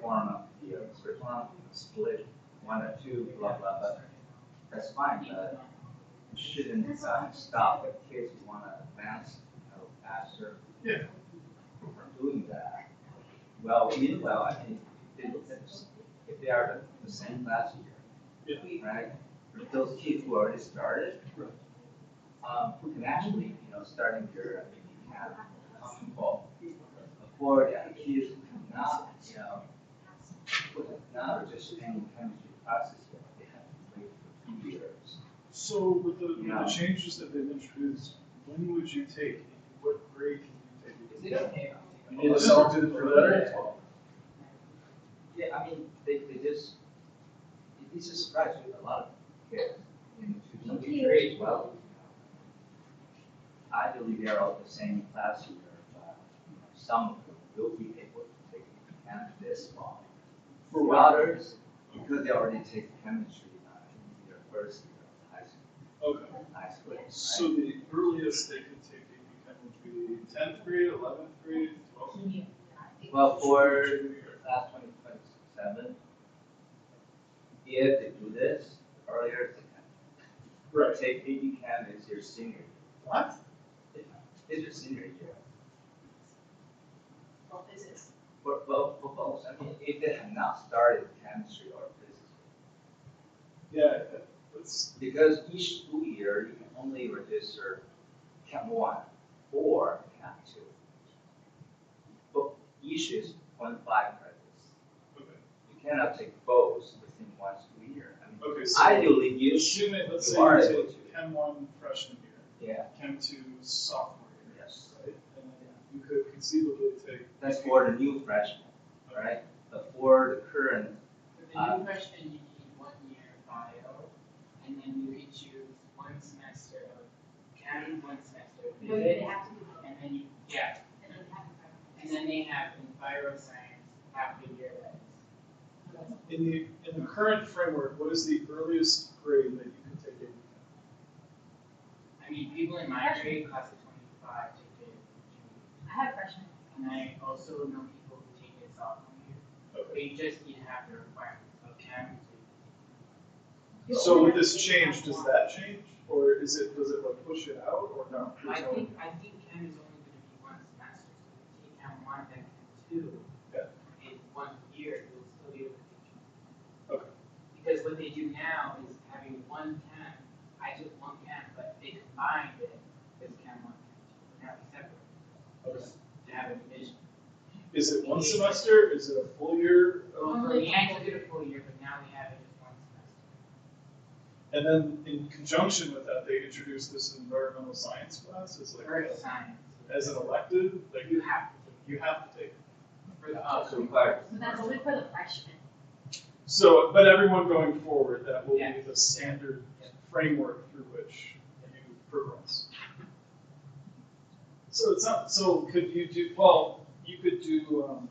quorum of, you know, split quorum, split one or two, blah, blah, blah. That's fine, but you shouldn't uh, stop the kids who want to advance, you know, faster Yeah. from doing that. Well, meanwhile, I think it's- if they are the same last year, right? Those kids who already started, um, who can actually, you know, starting their, uh, have common ball. Afford uh, kids who cannot, you know, who cannot just in chemistry classes, but they have to wait for two years. So with the, with Yeah. the changes that they've introduced, when would you take, what grade can you take? You need to sell it for that? Yeah, I mean, they, they just, it- it's just surprising a lot of kids in two, some grades, well. I believe they're all the same class year, but you know, some of them will be able to take chem this fall. For others, because they already take chemistry uh, in their first year of high school, Okay, high school, right? so the earliest they could take AP Chem would be tenth grade, eleventh grade, twelfth? Well, for class twenty twenty-seven, if they do this earlier, they can Right. Take AP Chem is your senior, What? year. is your senior year. For, well, for both, I mean, if they have not started chemistry or physics, Yeah, that's, because each school year, you can only register Chem one or Chem two. But each is point five credits. okay, You cannot take both within one school year. I mean, okay, so Ideally, you should, assume it, let's say you are you able take to. Chem one freshman year, yeah, Chem two sophomore year, yes. right? And then you could conceivably take. That's for the new freshman, right? But for the current, For the new freshman, you need one year of bio, and then you can choose one semester of chem, one semester of No, you physics, have to do that. and then you, yeah, And then have a and then they have enviroscience half the year that is. presentation. In the, in the current framework, what is the earliest grade that you can take AP Chem? I mean, people in my grade, class of twenty-five, take it in I have freshmen. June. And I also know people who take it sophomore year. Okay. They just didn't have the requirements of chem You So only with have this to do change, that does one. that change, or is it, does it like push it out, or no? to. I think, I think chem is only gonna be one semester, so if you take chem one, then chem two. Yeah. In one year, you'll still be able to take chem. Okay. Because what they do now is having one chem, I took one chem, but they combined it as chem one, chem two, now it's separate. Okay. To have a division. Is it one semester, is it a full year? Well, for me, I took it a full year, but now we have it as one semester. And then in conjunction with that, they introduced this environmental science class as like, Earth a- science. as an elective, like You have to take you have to take. it. it for the uh, other. requires. So that's only for the freshmen. So, but everyone going forward, that will be Yeah. the standard framework through which you progress. So it's not, so could you do, well, you could do um,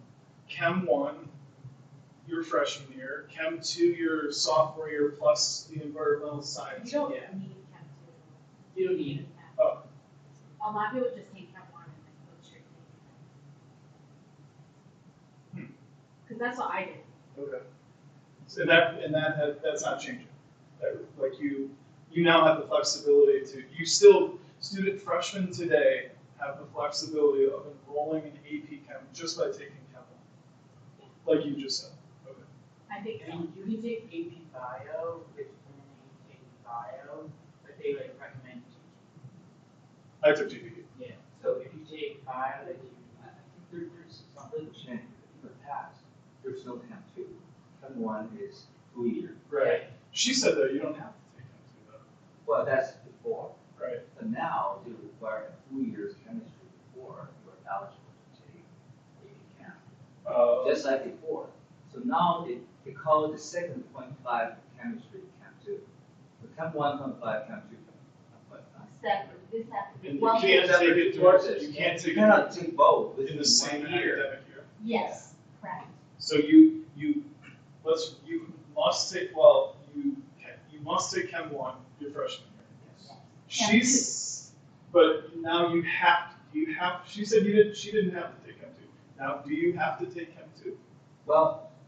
Chem one your freshman year, Chem two your sophomore year, plus the environmental You science. don't need yeah. chem You don't need two. it. Oh. A lot of people just take chem one and then go straight to chem. Cause that's what I did. Okay. So that, and that, that, that's not changing. That, like you, you now have the flexibility to, you still, student freshmen today have the flexibility of enrolling in AP Chem just by taking Chem one. Like you just said. Okay. I think, I mean, you can take AP Bio, which only take Bio, but they like recommend you I took E. GPE. take. Yeah. So if you take Bio, then you. There, there's some little change in the past. There's no Chem two. Chem one is two year. Right. She said though, you don't have to take Chem two Well, that's before. though. Right. But now they require two years chemistry before you are eligible to take AP Chem. Uh, Just like before. So now they, they call the second point five chemistry Chem two. So Chem one point five, Chem two point five. separate, this has to and be, you well, can't that's take it, towards during- it. you can't You take cannot it take both in within the same one year. academic year. yes, correct. So you, you, let's, you must take, well, you, can- you must take Chem one your freshman year. Yes. Chem She's, but now you have, you have, she said you didn't, she didn't have to take Chem two. Now, do you have to take Chem two? Well,